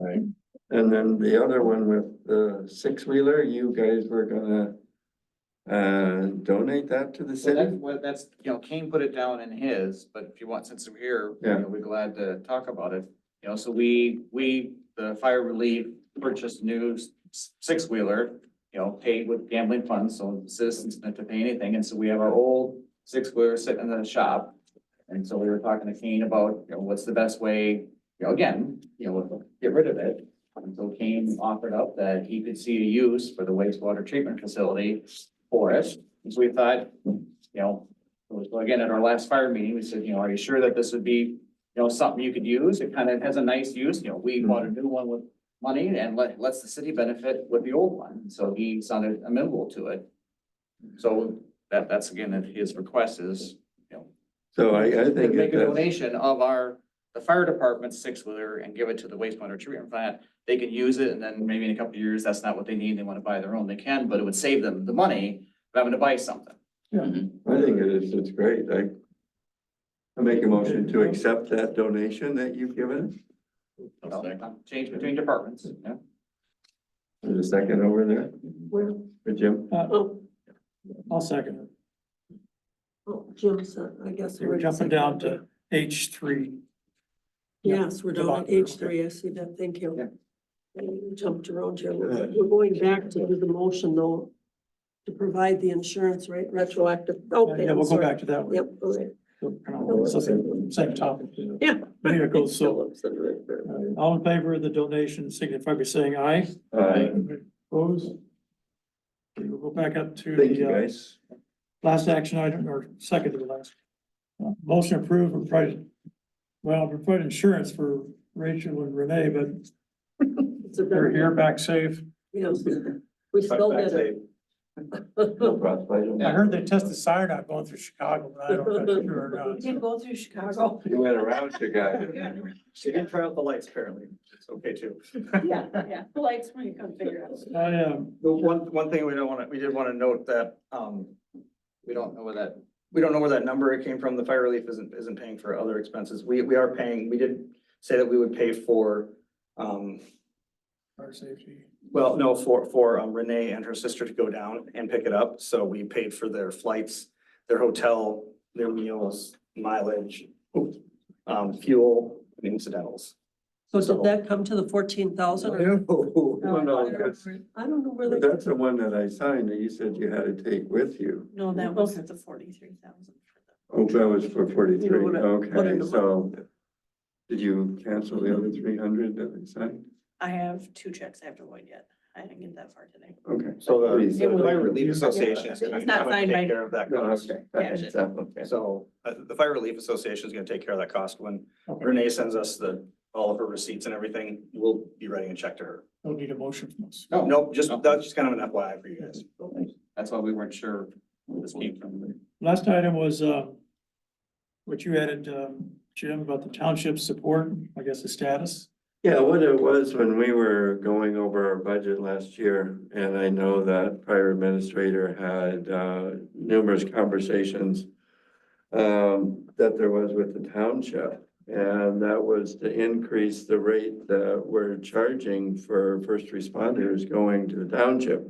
right? And then the other one with the six-wheeler, you guys were gonna uh, donate that to the So that's, city? well, that's, you know, Kane put it down in his, but if you want, since we're here, you Yeah. know, we're glad to talk about it. You know, so we, we, the fire relief purchased new six wheeler, you know, paid with gambling funds, so citizens didn't have to pay anything. And so we have our old six wheeler sitting in the shop. And so we were talking to Kane about, you know, what's the best way, you know, again, you know, get rid of it. And so Kane offered up that he could see a use for the wastewater treatment facility for it. And so we thought, you know, it was, well, again, at our last fire meeting, we said, you know, are you sure that this would be, you know, something you could use? It kind of has a nice use, you know, we bought a new one with money and let, lets the city benefit with the old one. So he sounded amenable to it. So that, that's again, if his request is, you know, So I, I to think make if a that's, donation of our, the fire department's six-wheeler and give it to the wastewater treatment plant. They can use it and then maybe in a couple of years, that's not what they need. They want to buy their own. They can, but it would save them the money of having to buy something. I think it is, it's great, I I make a motion to accept that donation that you've given. Well, um, Change between departments, yeah. There's a second over there Where, for Jim. oh, I'll second it. oh, Jim said, I guess. So we're jumping down to H three. Yes, we're down at Yeah. H three, I see that, thank you. Yeah. We Jumped around here, a little bit. we're going back to do the motion though, to provide the insurance rate retroactive, okay. Yeah, we'll go sorry. back to that one. Yep, okay. It's the Same same topic. Yeah. But here it goes. So Phillips and Ritter. uh, all in favor of the donation signify by saying aye. Uh, Opposed? Okay, We'll go back up to thank you, the uh, guys. last action item or second to the last. Uh, Motion approved and provide, well, provide insurance for Rachel and Renee, but It's a they're better- here back safe. Yes, we still did it. No crossbite on I that. heard they tested cyanide going through Chicago, but I don't know if that's true or not. We did go through Chicago. You went around, you guys. She did try out the lights apparently. It's okay too. Yeah, yeah. The lights when you come figure out. I um, The one, one thing we don't want to, we did want to note that, um, We don't know where that, we don't know where that number came from. The fire relief isn't, isn't paying for other expenses. We, we are paying, we did say that we would pay for, um, fire safety. well, no, for, for um, Renee and her sister to go down and pick it up. So we paid for their flights, their hotel, their meals, mileage, um, fuel, and incidentals. So did that come to the fourteen thousand? No, no, that's- I don't know where But they, Oh, That's the one that I signed that you said you had to take with you. No, that wasn't the forty-three thousand. Oh, that was for You know forty-three, what I- what I- okay, so. Did you cancel the other three hundred that we signed? I have two checks I have to void yet. I didn't get that far today. Okay. So the Please, uh, Fire Relief Association is going It's not to signed by- take care of that No, cost. okay, that Yeah. is up, okay. So uh, the Fire Relief Association is gonna take care of that cost. When Okay, Renee sends us the, all of her receipts and everything, we'll be writing a check to her. don't need a motion from us. no, Nope, just, that's just kind of an FYI for you guys. that's why we weren't sure where this came from. Last item was, uh, what you added, um, Jim, about the township support, I guess the status. Yeah, what it was when we were going over our budget last year, and I know that prior administrator had uh, numerous conversations um, that there was with the township, and that was to increase the rate that we're charging for first responders going to the township.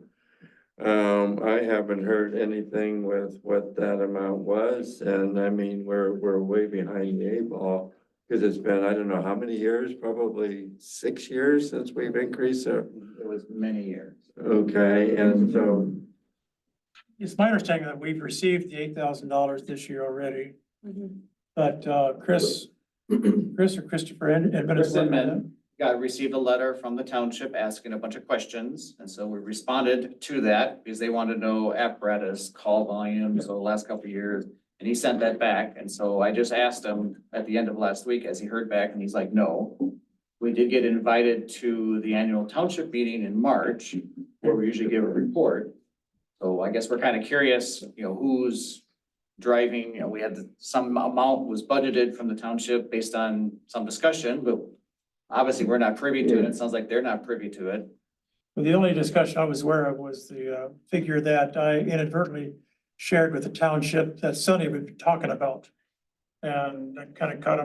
Um, I haven't heard anything with what that amount was, and I mean, we're, we're way behind the eight ball. Because it's been, I don't know how many years, probably six years since we've increased it. It was many years. Okay, and so, It's my understanding that we've received the eight thousand dollars this year already, Mm-hmm. but, uh, Chris, Chris or Christopher Ed- Edmonds. Chris Edmund. Got, received a letter from the township asking a bunch of questions, and so we responded to that because they wanted to know apparatus, call volumes over the last couple of years. And he sent that back, and so I just asked him at the end of last week as he heard back, and he's like, no. We did get invited to the annual township meeting in March, where we usually give a report. So I guess we're kind of curious, you know, who's driving, you know, we had the- some amount was budgeted from the township based on some discussion, but obviously, we're not privy to it. It sounds like they're not privy to it. Well, the only discussion I was aware of was the, uh, figure that I inadvertently shared with the township that Sonny had been talking about. And I kind of caught